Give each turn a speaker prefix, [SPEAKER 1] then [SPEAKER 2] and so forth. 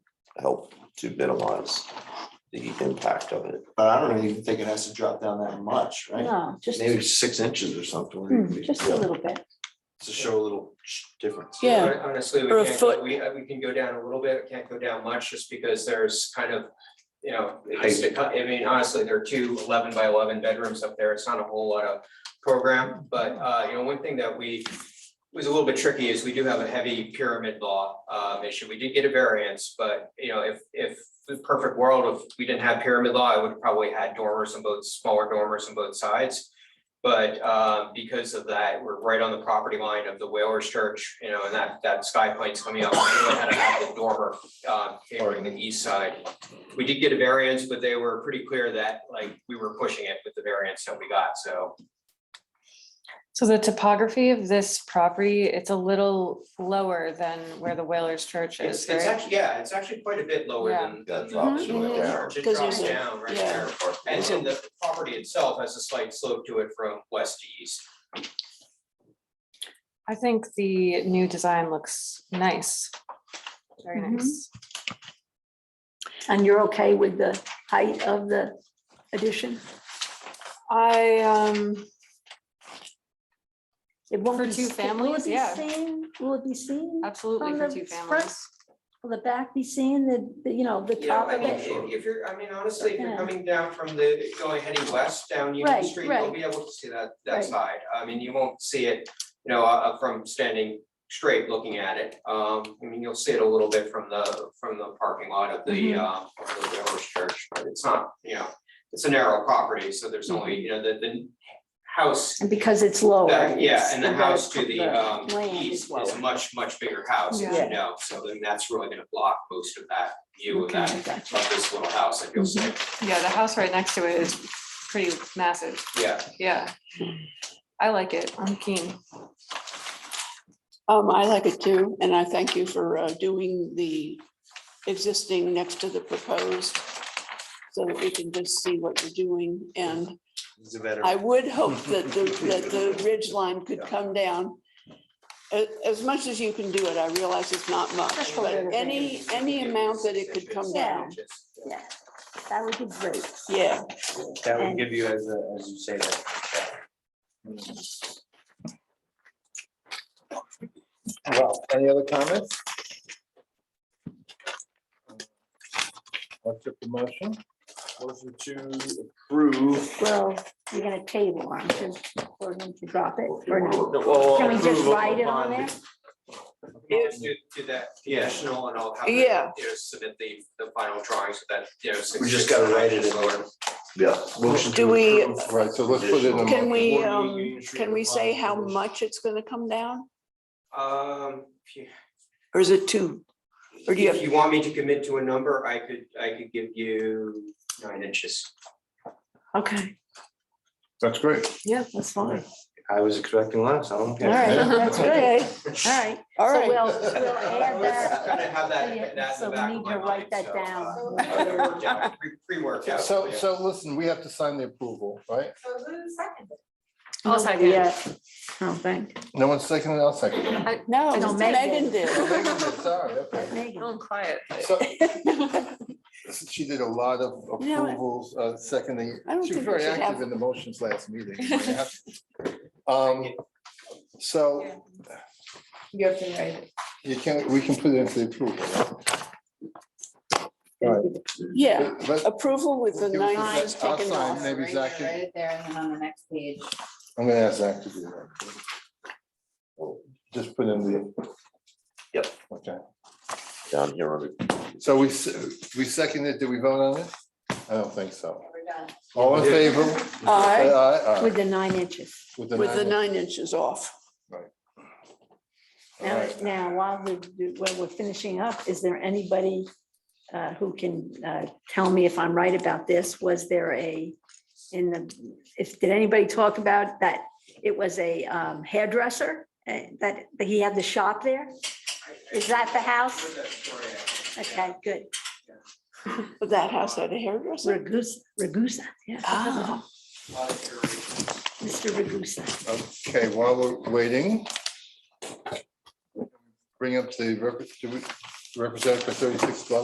[SPEAKER 1] help to minimize the impact of it.
[SPEAKER 2] But I don't even think it has to drop down that much, right?
[SPEAKER 3] No, just,
[SPEAKER 2] Maybe six inches or something. where you
[SPEAKER 3] hmm,
[SPEAKER 2] can-
[SPEAKER 3] just a little bit.
[SPEAKER 2] To show a little sh- difference.
[SPEAKER 3] Yeah.
[SPEAKER 4] Hon- Honestly, we
[SPEAKER 3] Or a
[SPEAKER 4] can't,
[SPEAKER 3] foot.
[SPEAKER 4] go- we, uh, we can go down a little bit, we can't go down much, just because there's kind of, you know, it's, I mean, honestly, there are two 11 by eleven bedrooms up there, it's not a whole lot of program, but, uh, you know, one thing that we was a little bit tricky is we do have a heavy pyramid law, um, issue, we did get a variance, but, you know, if, if the perfect world, if we didn't have pyramid law, I would have probably had dormers on both, smaller dormers on both sides. But uh, because of that, we're right on the property line of the Whalers Church, you know, and that, that sky plane's coming up. We really had to have the dormer uh, favoring the east side. We did get a variance, but they were pretty clear that like we were pushing it with the variance that we got, so.
[SPEAKER 5] So the topography of this property, it's a little lower than where the Whalers Church
[SPEAKER 4] It's,
[SPEAKER 5] is,
[SPEAKER 4] it's
[SPEAKER 5] right?
[SPEAKER 4] actually, yeah, it's actually quite a bit lower
[SPEAKER 5] Yeah.
[SPEAKER 4] than.
[SPEAKER 1] That
[SPEAKER 4] than the
[SPEAKER 1] drops
[SPEAKER 3] Mhm.
[SPEAKER 4] Whalers
[SPEAKER 1] down.
[SPEAKER 4] Church. It
[SPEAKER 3] Because
[SPEAKER 4] drops
[SPEAKER 3] there's a-
[SPEAKER 4] down right
[SPEAKER 3] yeah.
[SPEAKER 4] there. And then the property itself has a slight slope to it from west to east.
[SPEAKER 5] I think the new design looks nice. Very
[SPEAKER 3] Mhm.
[SPEAKER 5] nice.
[SPEAKER 3] And you're okay with the height of the addition?
[SPEAKER 5] I, um,
[SPEAKER 3] It won't
[SPEAKER 5] For
[SPEAKER 3] be
[SPEAKER 5] two
[SPEAKER 3] s- it- will it
[SPEAKER 5] families,
[SPEAKER 3] be
[SPEAKER 5] yeah. Uh,
[SPEAKER 3] seen? Will it be seen?
[SPEAKER 5] absolutely
[SPEAKER 3] From
[SPEAKER 5] for
[SPEAKER 3] the
[SPEAKER 5] two
[SPEAKER 3] front-
[SPEAKER 5] families.
[SPEAKER 3] Will the back be seen, the, the, you know, the
[SPEAKER 4] You know,
[SPEAKER 3] top
[SPEAKER 4] I
[SPEAKER 3] of
[SPEAKER 4] mean,
[SPEAKER 3] it?
[SPEAKER 4] if if you're, I mean, honestly, if
[SPEAKER 3] Yeah.
[SPEAKER 4] you're coming down from the, going heading west down Union
[SPEAKER 3] Right,
[SPEAKER 4] Street, you'll
[SPEAKER 3] right.
[SPEAKER 4] be able to see that,
[SPEAKER 3] Right.
[SPEAKER 4] that side. I mean, you won't see it, you know, uh, from standing straight looking at it. Um, I mean, you'll see it a little bit from the, from the parking lot of the,
[SPEAKER 5] Mhm.
[SPEAKER 3] Mm-hmm.
[SPEAKER 4] uh, of the Village Church, but it's not, you know, it's a narrow property, so there's
[SPEAKER 3] Mm-hmm.
[SPEAKER 4] only, you know, the, the house
[SPEAKER 3] And because it's lower.
[SPEAKER 4] that, yeah,
[SPEAKER 3] it's-
[SPEAKER 4] and the house to the, um,
[SPEAKER 3] land is
[SPEAKER 4] east is
[SPEAKER 3] lower.
[SPEAKER 4] a much, much bigger house, as
[SPEAKER 3] Yeah.
[SPEAKER 4] you know, so then that's really gonna block most of that view of
[SPEAKER 3] Okay,
[SPEAKER 4] that
[SPEAKER 3] I got you.
[SPEAKER 4] of this little house, I feel
[SPEAKER 6] Mhm.
[SPEAKER 4] safe,
[SPEAKER 5] Yeah, the house right next to it is pretty massive.
[SPEAKER 4] yeah.
[SPEAKER 5] Yeah. I like it. I'm keen.
[SPEAKER 6] Um, I like it too, and I thank you for uh, doing the existing next to the proposed. So that we can just see what you're doing, and
[SPEAKER 2] It's a better.
[SPEAKER 6] I would hope that the, that the ridge line could come down. As, as much as you can do it, I realize it's not much,
[SPEAKER 3] Just a
[SPEAKER 6] but
[SPEAKER 3] little bit.
[SPEAKER 6] any, any amount that it could come down,
[SPEAKER 3] Yeah, that would be great.
[SPEAKER 6] yeah.
[SPEAKER 2] That
[SPEAKER 3] would
[SPEAKER 2] give you as, as you say that.
[SPEAKER 7] Well, any other comments? What's your motion?
[SPEAKER 2] Motion to approve.
[SPEAKER 3] Well, you're gonna table, aren't you? We're going to drop it or not?
[SPEAKER 2] No, well,
[SPEAKER 3] Can we just
[SPEAKER 2] approve of
[SPEAKER 3] write it on
[SPEAKER 2] bond.
[SPEAKER 3] there?
[SPEAKER 4] Yes, do, do that, yeah, Chanel, and I'll have, them, you
[SPEAKER 6] Yeah.
[SPEAKER 4] know, submit the, the final drawings with that, you know.
[SPEAKER 2] We just gotta write it in.
[SPEAKER 1] Yeah.
[SPEAKER 2] Motion
[SPEAKER 6] Do
[SPEAKER 2] to
[SPEAKER 6] we-
[SPEAKER 2] approve
[SPEAKER 7] Right, so let's put it in a
[SPEAKER 2] additional-
[SPEAKER 6] Can we,
[SPEAKER 2] Board meeting,
[SPEAKER 6] um,
[SPEAKER 2] Union Street
[SPEAKER 6] can we say how
[SPEAKER 2] Revised.
[SPEAKER 6] much it's gonna come down,
[SPEAKER 4] Um, if you-
[SPEAKER 6] or is it two? Or do you
[SPEAKER 4] if
[SPEAKER 6] have-
[SPEAKER 4] you want me to commit to a number, I could, I could give you nine inches.
[SPEAKER 6] Okay,
[SPEAKER 7] That's great.
[SPEAKER 6] yeah, that's fine.
[SPEAKER 2] I was expecting less, I don't
[SPEAKER 3] All
[SPEAKER 2] care.
[SPEAKER 3] right,
[SPEAKER 7] Yeah.
[SPEAKER 3] that's
[SPEAKER 6] Okay,
[SPEAKER 3] good. All right.
[SPEAKER 6] all
[SPEAKER 3] So We'll,
[SPEAKER 6] right.
[SPEAKER 3] we'll add
[SPEAKER 4] It's
[SPEAKER 3] that.
[SPEAKER 4] Gotta have that,
[SPEAKER 3] Yeah,
[SPEAKER 4] that in the
[SPEAKER 3] so we
[SPEAKER 4] back of
[SPEAKER 3] need
[SPEAKER 4] my
[SPEAKER 3] to write
[SPEAKER 4] mind,
[SPEAKER 3] that
[SPEAKER 4] so,
[SPEAKER 3] down.
[SPEAKER 4] uh, I've got it worked out, pre- Pre-worked out.
[SPEAKER 7] So,
[SPEAKER 4] yeah.
[SPEAKER 7] so listen, we have to sign the approval, right?
[SPEAKER 5] I'll second.
[SPEAKER 3] Yeah. Oh, thank.
[SPEAKER 7] No one's seconding, I'll second. it.
[SPEAKER 6] No,
[SPEAKER 3] No, Megan.
[SPEAKER 6] Megan did.
[SPEAKER 7] Sorry, okay.
[SPEAKER 3] Megan.
[SPEAKER 5] quiet.
[SPEAKER 7] So she did a lot of
[SPEAKER 6] You know what?
[SPEAKER 7] approvals, uh, seconding.
[SPEAKER 6] I don't
[SPEAKER 7] She was
[SPEAKER 6] think we
[SPEAKER 7] very
[SPEAKER 6] should have-
[SPEAKER 7] active in the motions last meeting. Um, so
[SPEAKER 8] You have to write it.
[SPEAKER 7] you can, we can put it into the approval. right? All right,
[SPEAKER 6] Yeah,
[SPEAKER 7] let's-
[SPEAKER 6] approval with the
[SPEAKER 7] Give us a
[SPEAKER 6] nine
[SPEAKER 7] sec.
[SPEAKER 6] inches
[SPEAKER 7] I'll
[SPEAKER 6] taken
[SPEAKER 7] sign
[SPEAKER 6] off.
[SPEAKER 8] Right
[SPEAKER 7] maybe
[SPEAKER 8] there,
[SPEAKER 7] Zach can-
[SPEAKER 8] Write it there and then on the next page.
[SPEAKER 7] I'm gonna ask Zach to do that. Just put in the.
[SPEAKER 1] Yep.
[SPEAKER 7] Okay,
[SPEAKER 1] Down here on it.
[SPEAKER 7] so we, s- we seconded, did we vote on it? I don't think so.
[SPEAKER 8] We're done.
[SPEAKER 7] All in favor? Say
[SPEAKER 6] Aye,
[SPEAKER 7] Aye.
[SPEAKER 3] With
[SPEAKER 7] aye.
[SPEAKER 3] the nine inches.
[SPEAKER 7] uh,
[SPEAKER 6] with the nine inches off.
[SPEAKER 7] All
[SPEAKER 3] Now,
[SPEAKER 7] right.
[SPEAKER 3] now, while we're, while we're finishing up, is there anybody uh, who can uh, tell me if I'm right about this? Was there a, in the, if, did anybody talk about that? It was a um, hairdresser uh, that, that he had the shop there? Is that the house? Okay, good.
[SPEAKER 6] But that house had a hairdresser.
[SPEAKER 3] Ragusa, Ragusa, yeah.
[SPEAKER 6] Ah,
[SPEAKER 3] Mr. Ragusa.
[SPEAKER 7] Okay, while we're waiting. Bring up the rep- do we- representative for thirty-six Glen